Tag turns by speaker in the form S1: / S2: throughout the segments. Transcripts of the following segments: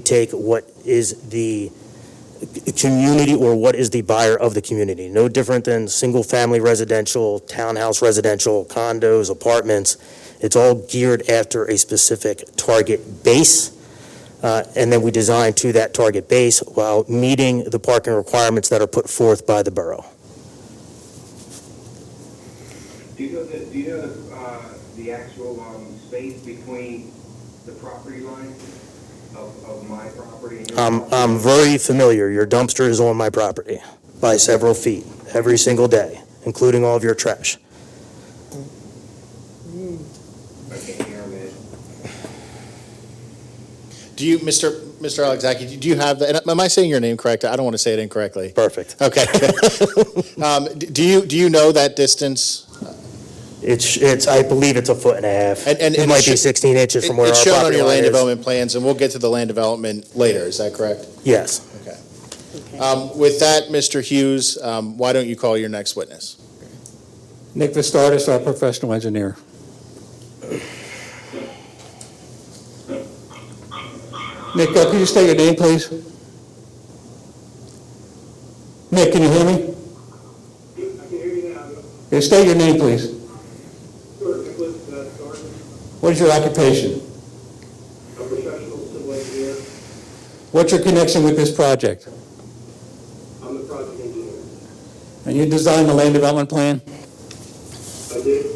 S1: take what is the c- community or what is the buyer of the community. No different than single-family residential, townhouse residential, condos, apartments. It's all geared after a specific target base. uh, And then we design to that target base while meeting the parking requirements that are put forth by the borough.
S2: Do you know the, do you know the, uh, the actual, um, space between the property line of, of my property and your?
S1: I'm,
S2: property?
S1: I'm very familiar. Your dumpster is on my property by several feet every single day, including all of your trash.
S2: I can't hear him.
S3: Do you, Mr. Mr. Alexakis, do you have, the- and am I saying your name correct? I don't want to say it incorrectly.
S1: Perfect.
S3: Okay. Um, d- Do you, do you know that distance?
S1: It's, it's, I believe it's a foot and a half.
S3: And- and-
S1: It
S3: and
S1: might
S3: it
S1: be
S3: should-
S1: 16 inches from where our
S3: It's shown on
S1: property
S3: your
S1: line
S3: land
S1: is.
S3: development plans, and we'll get to the land development later, is that correct?
S1: Yes.
S3: Um, With that, Mr. Hughes, um, why don't you call your next witness?
S4: Nick Vistardis, our professional engineer. Nick, uh, can you state your name, please? Nick, can you hear me?
S5: I can hear you now.
S4: Yeah, State your name, please.
S5: Sure, Nicholas uh, Thornton,
S4: What is your occupation?
S5: a professional civil engineer.
S4: What's your connection with this project?
S5: I'm the project engineer.
S4: And you designed the land development plan?
S5: I did,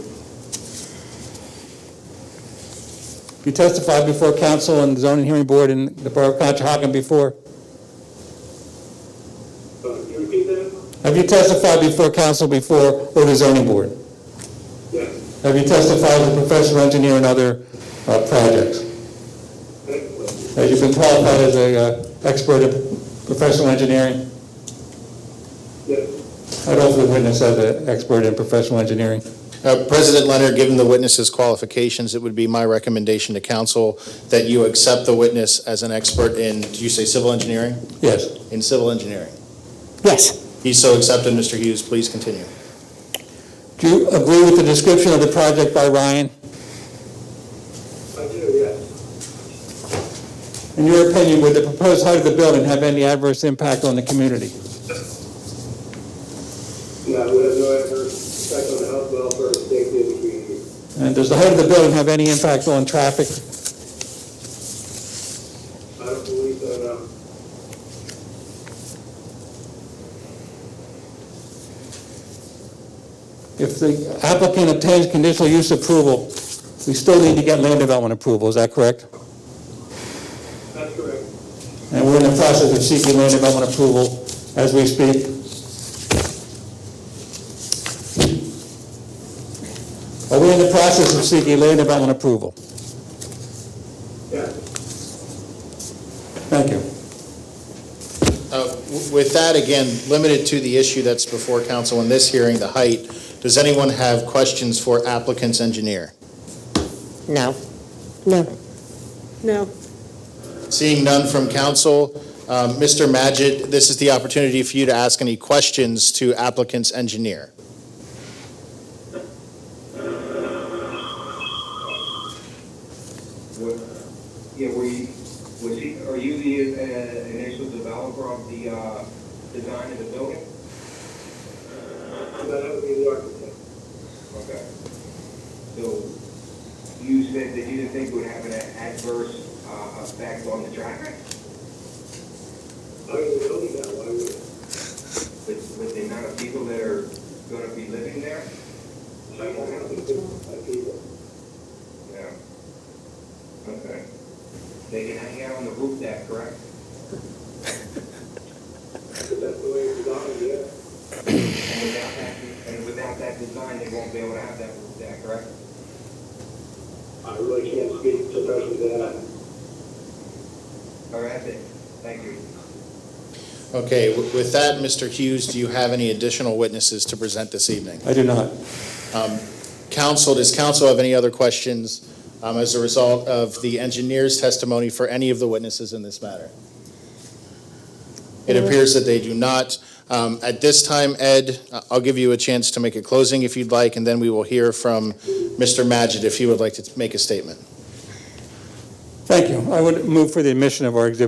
S4: You testified before council and zoning hearing board and the Borough of Conshohocken before?
S5: uh, can you repeat that?
S4: Have you testified before council before or the zoning board?
S5: Yes.
S4: Have you testified as a professional engineer in other uh, projects?
S5: Excellent.
S4: Have you been qualified as a uh, expert in professional engineering?
S5: Yes.
S4: I'd offer the witness as an expert in professional engineering.
S3: Uh, President Leonard, given the witness's qualifications, it would be my recommendation to council that you accept the witness as an expert in, do you say civil engineering?
S4: Yes.
S3: In civil engineering.
S4: Yes.
S3: He's so accepted, Mr. Hughes, please continue.
S4: Do you agree with the description of the project by Ryan?
S5: I do, yes.
S4: In your opinion, would the proposed height of the building have any adverse impact on the community?
S5: And I would have no adverse effect on the health, welfare, and safety of the community.
S4: And does the height of the building have any impact on traffic?
S5: I don't believe uh, so, no.
S4: If the applicant obtains conditional use approval, we still need to get land development approval, is that correct?
S5: That's correct.
S4: And we're in the process of seeking land development approval as we speak. Are we in the process of seeking land development approval?
S5: Yes.
S4: Thank you.
S3: Uh, w- With that, again, limited to the issue that's before council in this hearing, the height, does anyone have questions for applicant's engineer?
S6: No. No. No.
S3: Seeing none from council, um, Mr. Majid, this is the opportunity for you to ask any questions to applicant's engineer.
S2: What, yeah, were you, was he, are you the, uh, initial developer of the, uh, design of the building?
S5: And that would be the architect.
S2: Okay. So you said that you didn't think it would have an adverse, uh, effect on the traffic?
S5: I mean, the building now, why would it?
S2: With, with the amount of people that are gonna be living there?
S5: I don't have to think about people.
S2: Yeah. Okay. They can hang out on the roof deck, correct?
S5: But that's the way it's designed, yeah.
S2: And without that, and without that design, they won't be able to have that roof deck, correct?
S5: I really can't speak to that.
S2: All right, that's it. Thank you.
S3: Okay, w- with that, Mr. Hughes, do you have any additional witnesses to present this evening?
S4: I do not.
S3: Um, Council, does council have any other questions um, as a result of the engineer's testimony for any of the witnesses in this matter? It appears that they do not. Um, At this time, Ed, I- I'll give you a chance to make a closing if you'd like, and then we will hear from Mr. Majid if he would like to make a statement.
S4: Thank you. I would move for the admission of our exhibit